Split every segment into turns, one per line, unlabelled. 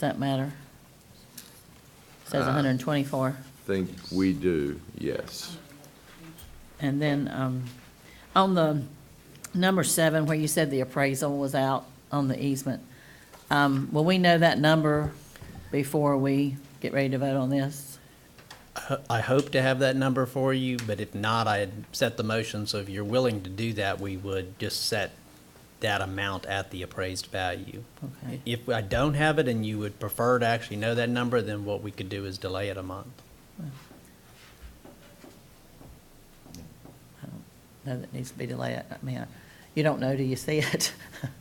that matter? Says
Uh.
hundred and twenty-four,
Think we do, yes.
and then, um, on the number seven, where you said the appraisal was out on the easement, um, will we know that number before we get ready to vote on this?
ho- I hope to have that number for you, but if not, I had set the motion, so if you're willing to do that, we would just set that amount at the appraised value.
Okay.
If I don't have it and you would prefer to actually know that number, then what we could do is delay it a month.
No, that needs to be delayed, I mean, I- you don't know till you see it.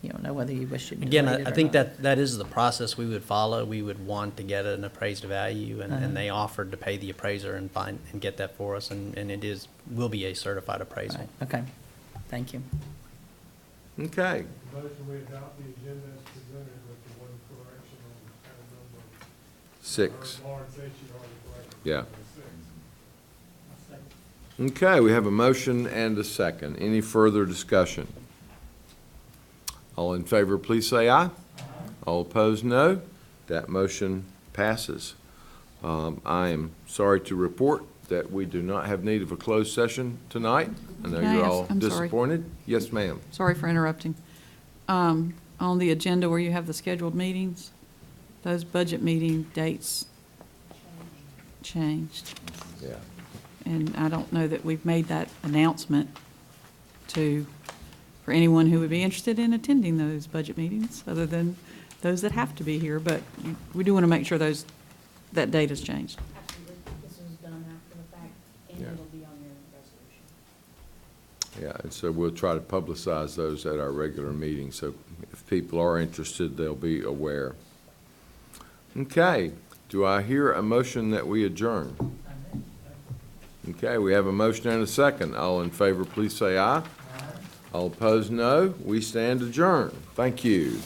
You don't know whether you wish it
Again,
delayed
I,
it
I
or not.
think that, that is the process we would follow. We would want to get an appraised value, and,
Uh-huh.
and they offered to pay the appraiser and find, and get that for us, and, and it is, will be a certified appraisal.
Right, Okay, thank you.
Okay,
Motion we adopt the agenda as presented with the one correction on item number.
six.
Or Lauren said she already corrected.
Yeah.
number Six.
Okay, we have a motion and a second. Any further discussion? All in favor, please say aye. All opposed, no. That motion passes. Um, I am sorry to report that we do not have need of a closed session tonight. I know
Can I
you're
ask-
all
I'm sorry.
disappointed. Yes, ma'am.
Sorry for interrupting. Um, On the agenda where you have the scheduled meetings, those budget meeting dates changed.
Yeah.
And I don't know that we've made that announcement to, for anyone who would be interested in attending those budget meetings, other than those that have to be here. But we do want to make sure those, that date has changed.
Absolutely, this was done after the fact, and
Yeah.
it'll be on your resolution.
Yeah, and so we'll try to publicize those at our regular meeting, so if people are interested, they'll be aware. Okay, do I hear a motion that we adjourn? Okay, we have a motion and a second. All in favor, please say aye. All opposed, no. We stand adjourned. Thank you.